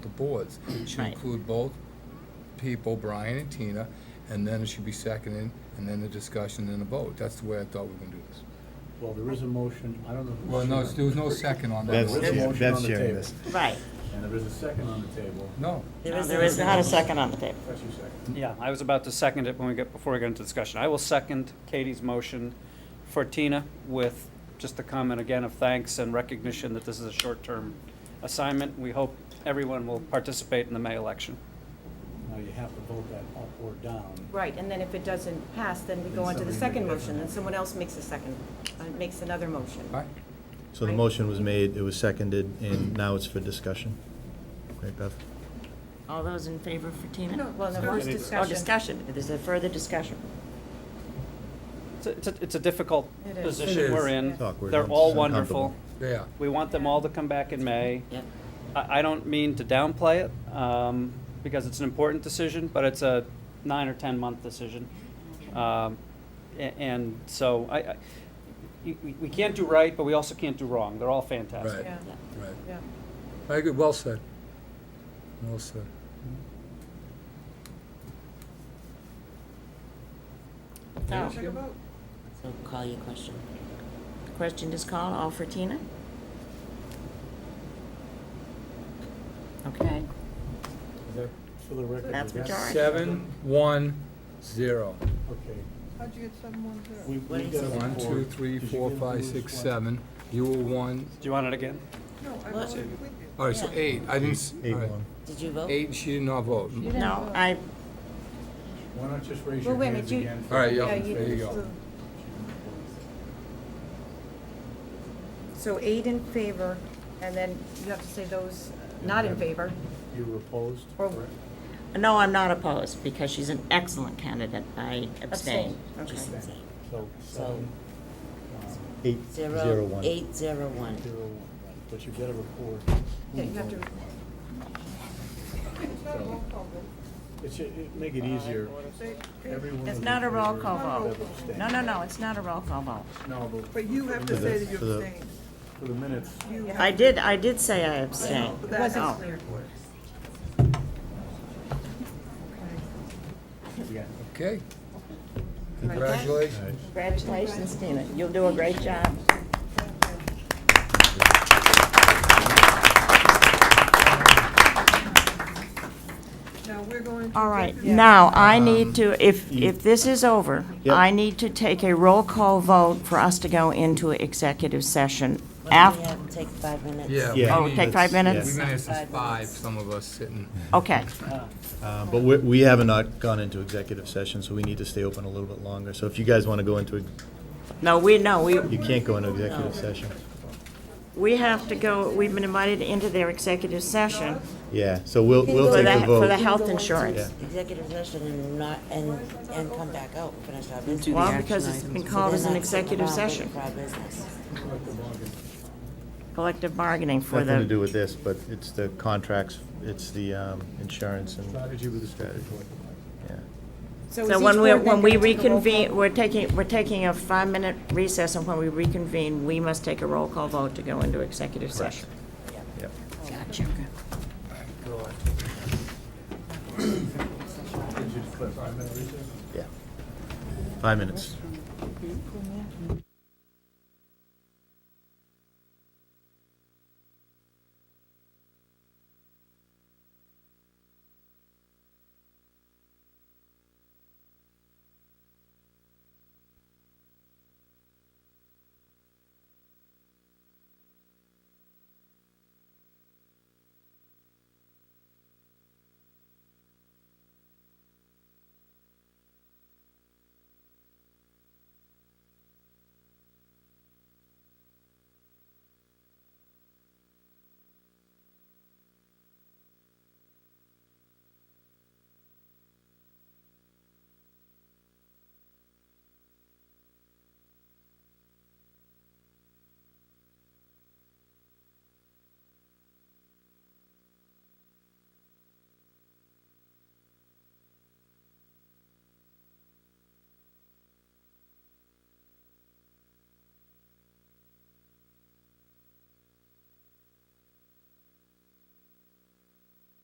the boards. It Should Right. include both people, Brian and Tina, and then it should be seconded, and then the discussion and the vote. That's the way I thought we were gonna do this. Well, there is a motion, I don't know. who- Well, no, there was no second on that. That's There's a yeah, motion Bev's on the sharing table. this. Right. And there is a second on the table. No. There is, there is not a second on the table. That's your second. Yeah, I was about to second it when we get, before we get into discussion. I will second Katie's motion for Tina with just a comment again of thanks and recognition that this is a short-term assignment. We hope everyone will participate in the May election. Now you have to vote that up or down. Right, and then if it doesn't pass, then we go on to the Then somebody second makes motion, another. then someone else makes a second, uh, makes another motion. All right. So the Right. motion was made, it was seconded, and now it's for discussion. Right, Bev? All those in favor for Tina? No, Well, no, Discussion. first Oh, discussion. discussion. There's a further discussion. It's a- It's a, it's a difficult It is. position It we're is. in. It's awkward. They're It's all uncomfortable. wonderful. Yeah. We want them all to come back in May. Yep. I, I don't mean to downplay it, um, because it's an important decision, but it's a nine or 10-month decision. Um, a- and so I, I, we, we- we can't do right, but we also can't do wrong. They're all fantastic. Oh, Right. Yeah, Right. yeah. I agree, well said. Well said. So so call your question. Question is called. All for Tina? Okay. Is that for the record? That's Is that- majority. Seven, one, zero. Okay. How'd you get seven one zero? We- we What is got a it? One, two, report. three, Did you four, get five, who's six, what? seven. You were one. Do you want it again? No, I What? was with you. All right, so Yeah. eight. I didn't. s- Eight all right. one. Did you vote? Eight, and she did not vote. No, I, Why not just raise Well, your wait a hands minute, you- again? for All right, the- yeah, Yeah, there you go. So eight in favor, and then you have to say those uh, not in favor. You were opposed? Or- correct? no, I'm not opposed because she's an excellent candidate. I abstain. Abstain, Just- So seven, um, Eight, zero Zero, one. eight, zero, one. zero, one, right. but you got to record. who Yeah, you have to, voted. It's not a roll call vote. It should, it make it easier. They- Everyone It's was not in a roll favor, call Bev vote. abstained. No, no, no, it's not a roll call vote. No, but. But you have to For the- say that you for the- abstained. For the minutes, You have I to- did, I did say I abstain. But that's Oh. clear. yeah. Okay. All Congratulations. right. Congratulations, Tina. You'll do a great job. Now, we're going to. All right, executive- now, I need to, if, if this is over, Um, Yep. I need to take a roll call vote for us to go into executive session after, Take five minutes. Yeah. Yeah. oh, we take need- five We've minutes? been here since Five five, minutes. some of us sitting. Okay, Uh, But we, we have not gone into executive session, so we need to stay open a little bit longer. So if you guys want to go into, no, we, no, we, you can't go into executive session. we have to go, we've been invited into their executive session Yeah, so we'll, we'll for take the, the for the vote. health insurance. Executive session and not, and, and come back out, and finish our business. Well, because it's been called as an executive session, For our business. collective bargaining for Nothing to the, do with this, but it's the contracts, it's the um, insurance and, Strategy with the strategy. yeah. is so each when we, board when then we gonna take a roll call? reconvene, we're taking, we're taking a five-minute recess, and when we reconvene, we must take a roll call vote to go into executive session. Yep. Gotcha. Yeah. Five minutes.